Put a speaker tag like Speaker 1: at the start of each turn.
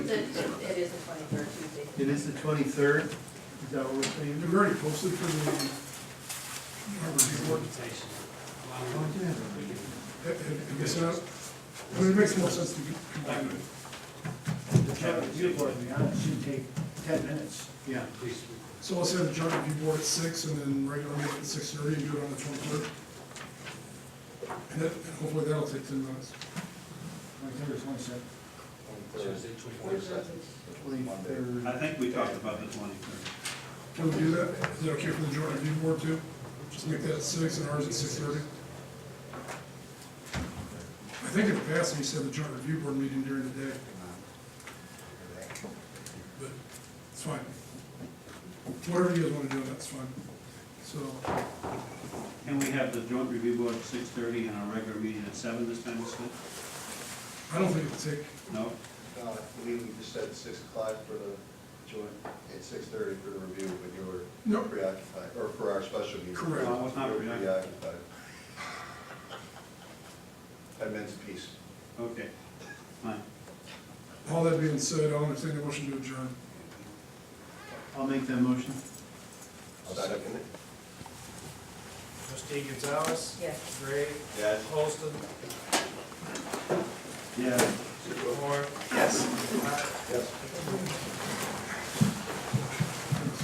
Speaker 1: the, it is the twenty-third Tuesday.
Speaker 2: It is the twenty-third, is that what we're saying?
Speaker 3: They're already posted for the, harbor board. I I guess, uh, I mean, it makes more sense to combine it.
Speaker 4: The traffic review board, to be honest, should take ten minutes.
Speaker 2: Yeah.
Speaker 3: So let's have the charter review board at six and then regular meeting at six thirty and do it on the twenty-third. And that, and hopefully that'll take ten minutes.
Speaker 4: Twenty-third or twenty-second.
Speaker 2: Twenty-third.
Speaker 5: I think we talked about the twenty-third.
Speaker 3: Can we do that? Is that okay for the joint review board too? Just make that at six and ours at six thirty? I think in the past, we said the joint review board meeting during the day. But it's fine. Whatever you guys wanna do, that's fine. So,
Speaker 5: Can we have the joint review board at six-thirty and our regular meeting at seven this time instead?
Speaker 3: I don't think it'll take,
Speaker 5: No?
Speaker 6: No, I believe we just said six o'clock for the joint, and six thirty for the review, but you
Speaker 3: No.
Speaker 6: were preoccupied, or for our special meeting.
Speaker 3: Correct.
Speaker 5: No, I was not
Speaker 6: You were
Speaker 5: preoccupied.
Speaker 6: I meant peace.
Speaker 5: Okay, fine.
Speaker 3: all that being said, I'll entertain a motion to adjourn.
Speaker 2: I'll make that motion.
Speaker 6: Second it?
Speaker 7: Trustee Gonzalez?
Speaker 1: Yes.
Speaker 7: Gray?
Speaker 6: Yes.
Speaker 7: Holston?
Speaker 5: Yeah.